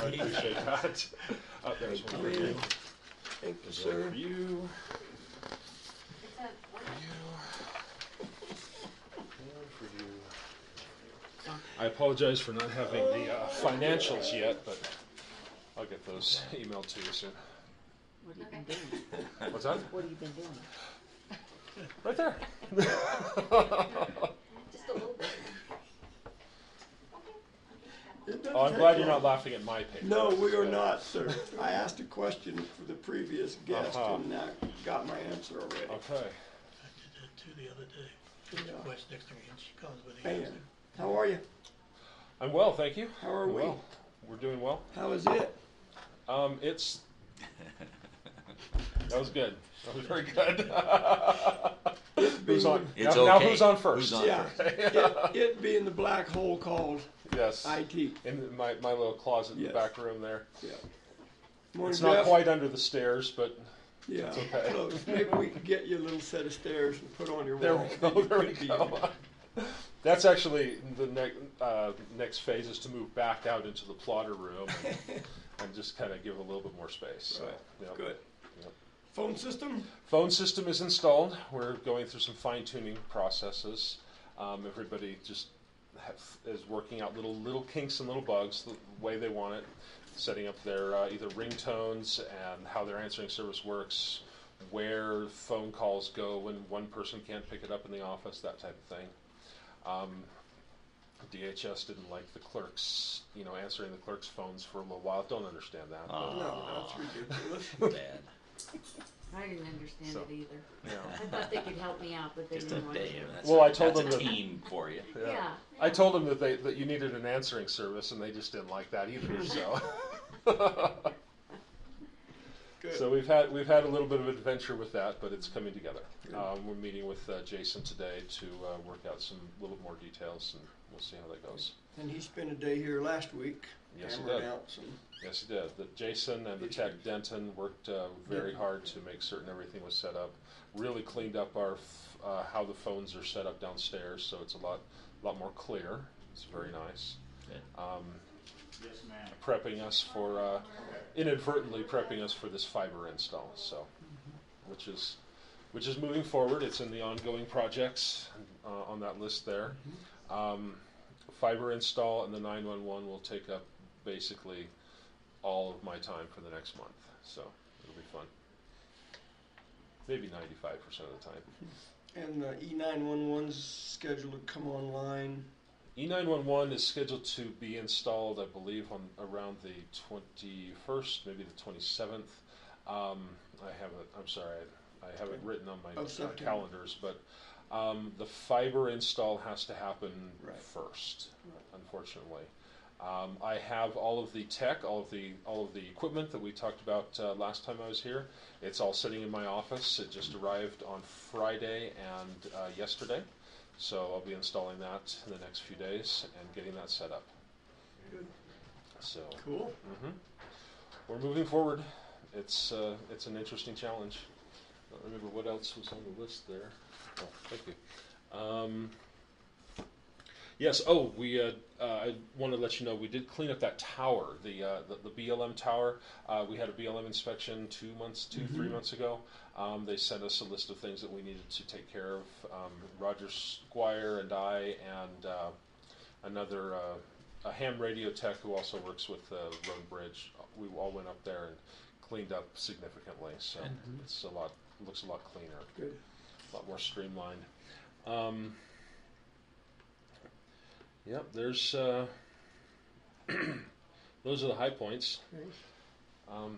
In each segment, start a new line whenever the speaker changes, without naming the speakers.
I appreciate that. Uh, there's one for you.
Thank you,
There's one
sir.
for you.
It's a,
You. One for you. I apologize for not having the uh, financials yet, but I'll get those emailed to you soon.
What have you been doing?
What's that?
What have you been doing?
Right there.
just a little bit.
It doesn't
Oh, I'm glad
take
you're not
long.
laughing at my paper.
No, we are not, sir. I asked a question for the previous guest
Uh-huh.
and I got my answer already.
Okay.
I did that too the other day. She was
Yeah.
quite next to me and she comes with the
Man,
answer.
how are you?
I'm well, thank you.
How are
I'm
we?
well. We're doing well.
How is it?
Um, it's. That was good. That was very good. who's on?
It's
now, now
okay.
who's on first?
Who's on?
Yeah, it, it being the black hole called
Yes.
IT.
in my, my little closet in the
Yes.
back room there.
Yeah. Morning,
It's not
Jeff.
quite under the stairs, but
Yeah,
okay.
close. Maybe we can get you a little set of stairs and put on your
there
wall.
we go. There we
Could be in
go.
there.
That's actually the next uh, next phase is to move back out into the plotter room and, and just kind of give a little bit more space. So,
Right.
yeah.
Good.
Yep.
Phone system?
Phone system is installed. We're going through some fine tuning processes. Um, everybody just have, is working out little little kinks and little bugs the way they want it, setting up their uh, either ringtones and how their answering service works, where phone calls go when one person can't pick it up in the office, that type of thing. Um, DHS didn't like the clerks, you know, answering the clerks' phones for a little while. Don't understand that. but,
Aw.
No, that's ridiculous.
Bad.
I didn't understand
So-
it either.
yeah.
I thought they could help me out, but they
Just a
didn't want to.
day. That's
Well,
a-
I told
that's
them
a
that-
team for you.
Yeah.
Yeah.
I told them that they that you needed an answering service, and they just didn't like that either. So,
Good.
so we've had we've had a little bit of adventure with that, but it's coming together. Um, we're meeting with uh, Jason today to uh, work out some little more details, and we'll see how that goes.
And he spent a day here last week.
Yes, he
hammering
did.
out some-
Yes, he did. The Jason and the tech Denton worked uh, very hard to make certain everything was set up. Really cleaned up our f- uh, how the phones are set up downstairs, so it's a lot lot more clear. It's very nice.
Good.
Um, Prepping us for uh, inadvertently prepping us for this fiber install, so which is which is moving forward. It's in the ongoing projects uh, on that list there. Um, fiber install and the 911 will take up basically all of my time for the next month. So it'll be fun. Maybe 95% of the time.
And the E E911's scheduled to come online.
E E911 is scheduled to be installed, I believe, on around the 21st, maybe the 27th. Um, I have it. I'm sorry, I, I have it written on my
Of
uh,
September.
calendars, but um, the fiber install has to happen
Right.
first,
Right.
unfortunately. Um, I have all of the tech, all of the all of the equipment that we talked about uh, last time I was here. It's all sitting in my office. It just arrived on Friday and uh, yesterday. So I'll be installing that in the next few days and getting that set up.
Good.
So
Cool.
mhm. we're moving forward. It's uh, it's an interesting challenge. I don't remember what else was on the list there. Oh, thank you. Um, yes. Oh, we. Uh, uh, I want to let you know we did clean up that tower, the uh, the, the BLM tower. Uh, we had a BLM inspection two months, 2 three months ago. Um, they sent us a list of things that we needed to take care of. Um, Roger Squire and I and uh, another uh, a ham radio tech who also works with the road bridge. We all went up there and cleaned up significantly. So it's a lot looks a lot cleaner,
Good.
a lot more streamlined. Um, yep, there's uh, those are the high points. Um,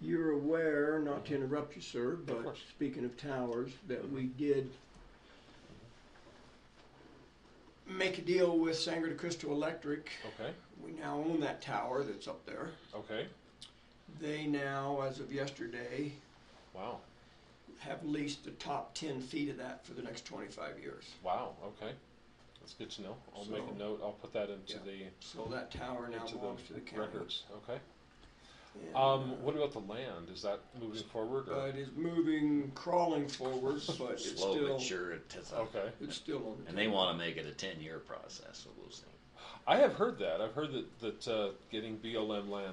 You're aware, not to interrupt you, sir, but
course.
speaking of towers, that we did make a deal with Sangre de Cristo Electric.
okay,
We now own that tower that's up there.
okay,
They now, as of yesterday,
wow,
have leased the top ten feet of that for the next twenty-five years.
wow, okay. That's good to know. I'll make
So-
a note. I'll put that into
Yeah. So that tower
the
now
into
belongs to the
the
county.
records. Okay.
And, uh,
Um, what about the land? Is that moving forward? Or?
Uh, it is moving, crawling forward, but it's
Slow
still,
but sure. It does not-
okay.
it's still on the
And they want to make it a ten-year process, so we'll see.
I have heard that. I've heard that that uh, getting BLM land